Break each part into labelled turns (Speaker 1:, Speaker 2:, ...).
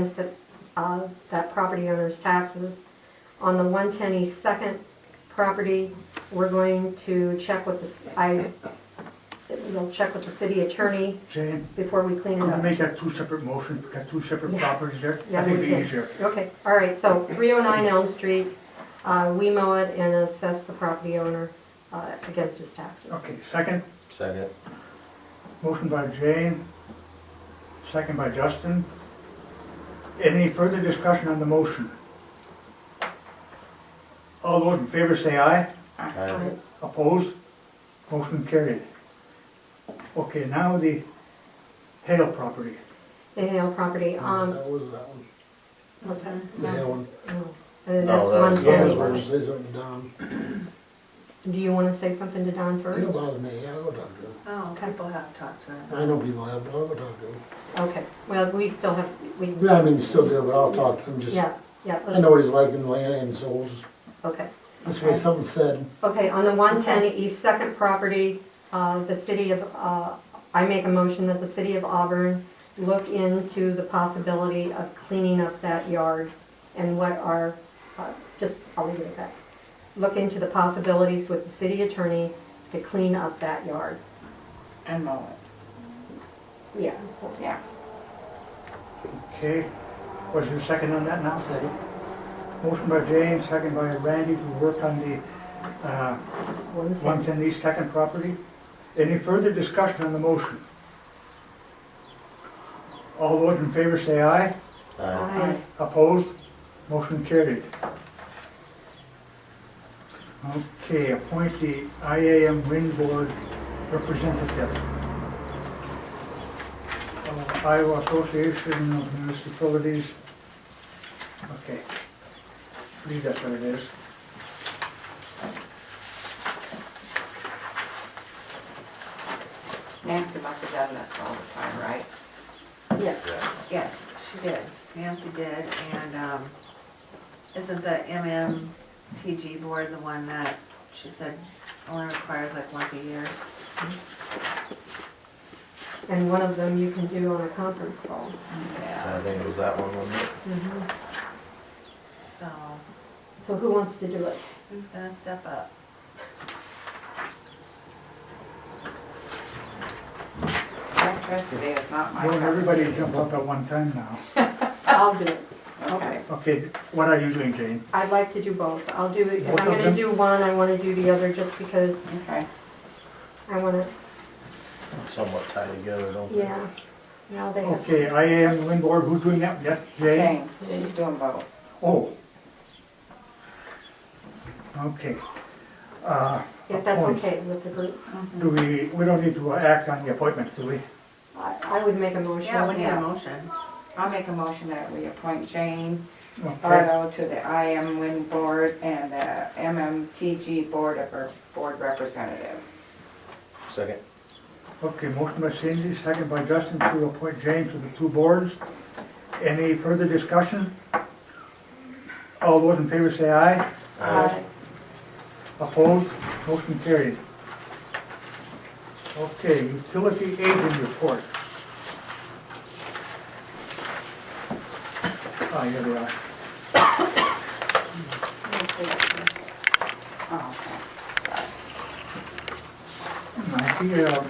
Speaker 1: is that, uh, that property owner's taxes. On the one ten East Second property, we're going to check with the, s- I, we'll check with the city attorney
Speaker 2: Jane,
Speaker 1: before we clean
Speaker 2: I'm
Speaker 1: it
Speaker 2: gonna
Speaker 1: up.
Speaker 2: make that two separate motions, we got two separate
Speaker 1: Yeah.
Speaker 2: properties there. I
Speaker 1: Yeah,
Speaker 2: think
Speaker 1: we
Speaker 2: it'd be
Speaker 1: can.
Speaker 2: easier.
Speaker 1: Okay, all right, so three oh nine Elm Street, uh, we mow it and assess the property owner, uh, against his taxes.
Speaker 2: Okay, second,
Speaker 3: Second.
Speaker 2: motion by Jane, second by Justin. Any further discussion on the motion? All those in favor say aye.
Speaker 3: Aye.
Speaker 2: Opposed? Motion carried. Okay, now the Hale property.
Speaker 1: The Hale property, um,
Speaker 4: That was that one,
Speaker 1: what's that?
Speaker 4: the
Speaker 1: No,
Speaker 4: Hale one.
Speaker 1: no. And
Speaker 3: No,
Speaker 1: uh, that's
Speaker 3: that
Speaker 1: one
Speaker 3: was- Yeah,
Speaker 4: I was
Speaker 3: it's-
Speaker 4: gonna
Speaker 1: ten.
Speaker 4: say something to Don.
Speaker 1: Do you wanna say something to Don
Speaker 4: They don't
Speaker 1: first?
Speaker 4: bother me, I go talk to him.
Speaker 5: Oh, people have talked to her.
Speaker 4: I know people have, but I'll go talk to him.
Speaker 1: Okay, well, we still have, we,
Speaker 4: Yeah, I mean, still do, but I'll talk to him, just,
Speaker 1: yeah, yeah,
Speaker 4: I
Speaker 1: let's,
Speaker 4: know what he's like in land and souls.
Speaker 1: okay.
Speaker 4: That's why something said,
Speaker 1: Okay, on the one ten East Second property, uh, the city of, uh, I make a motion that the city of Auburn look into the possibility of cleaning up that yard and what are, uh, just, I'll leave it at that. Look into the possibilities with the city attorney to clean up that yard.
Speaker 5: And mow it.
Speaker 1: Yeah.
Speaker 5: Yeah.
Speaker 2: Okay, was there a second on that now? Second. Motion by Jane, second by Randy to work on the, uh,
Speaker 1: One ten.
Speaker 2: Once in the second property. Any further discussion on the motion? All those in favor say aye.
Speaker 3: Aye.
Speaker 1: Aye.
Speaker 2: Opposed? Motion carried. Okay, appoint the IAM Wind Board representative. Uh, Iowa Association of Municipalities. Okay. I believe that's what it is.
Speaker 5: Nancy must have done this all the time, right?
Speaker 1: Yes.
Speaker 5: Yes, she did. Nancy did, and, um, isn't the MMTG board the one that she said only requires like once a year?
Speaker 1: And one of them you can do on a conference call.
Speaker 5: Yeah.
Speaker 3: I think it was that one, wasn't it?
Speaker 5: So,
Speaker 1: So who wants to do it?
Speaker 5: who's gonna step up?
Speaker 6: Electricity is not my.
Speaker 2: Won't
Speaker 6: cup of
Speaker 2: everybody
Speaker 6: tea.
Speaker 2: jump up at one time now?
Speaker 1: I'll do it.
Speaker 6: Okay.
Speaker 2: Okay, what are you doing, Jane?
Speaker 1: I'd like to do both. I'll do, if
Speaker 2: Both
Speaker 1: I'm
Speaker 2: of
Speaker 1: gonna
Speaker 2: them?
Speaker 1: do one, I wanna do the other just because
Speaker 6: Okay.
Speaker 1: I wanna,
Speaker 3: Somewhat tied together, don't they?
Speaker 1: yeah. Now they have,
Speaker 2: Okay, I am Lindor, who's doing that? Yes, Jay?
Speaker 6: Jane, she's doing both.
Speaker 2: Oh. Okay. Uh,
Speaker 1: if that's
Speaker 2: appoints.
Speaker 1: okay with the group.
Speaker 2: Do we, we don't need to uh, act on the appointments, do we?
Speaker 1: I, I would make a motion.
Speaker 5: Yeah, we need a
Speaker 6: Yeah.
Speaker 5: motion.
Speaker 6: I'll make a motion that we appoint Jane
Speaker 2: Okay,
Speaker 6: Bardo to the IM Wind Board and the MMTG Board of, her Board Representative.
Speaker 3: Second.
Speaker 2: Okay. motion by Cindy, second by Justin to appoint Jane to the two boards. Any further discussion? All those in favor say aye.
Speaker 1: Uh,
Speaker 2: Opposed? Motion carried. Okay, utility agent report. Ah, here they are.
Speaker 6: Oh, okay.
Speaker 2: I see, uh,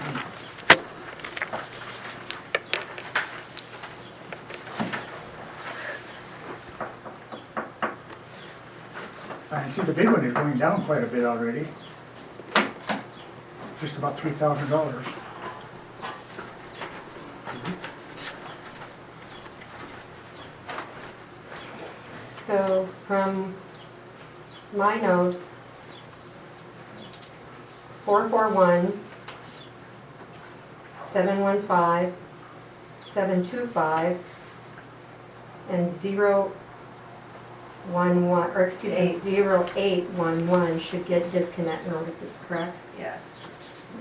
Speaker 2: I see the big one is going down quite a bit already. Just about three thousand dollars.
Speaker 1: So from my notes, four four one, seven one five, seven two five, and zero one one, or excuse me,
Speaker 5: Eight.
Speaker 1: zero eight one one should get disconnect notices, correct?
Speaker 5: Yes,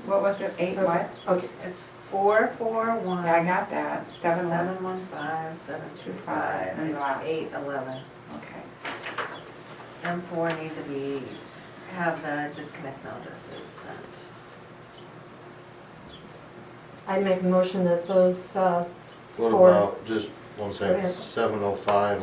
Speaker 6: What was it, eight what?
Speaker 1: Okay,
Speaker 5: it's four, four, one.
Speaker 6: Yeah, I got that, seven one.
Speaker 5: Seven one five, seven two five,
Speaker 6: And the last.
Speaker 5: eight eleven.
Speaker 6: Okay.
Speaker 5: M four need to be, have the disconnect notices sent.
Speaker 1: I make a motion that those, uh,
Speaker 3: What
Speaker 1: Four.
Speaker 3: about just one second,
Speaker 1: ahead.
Speaker 3: seven oh five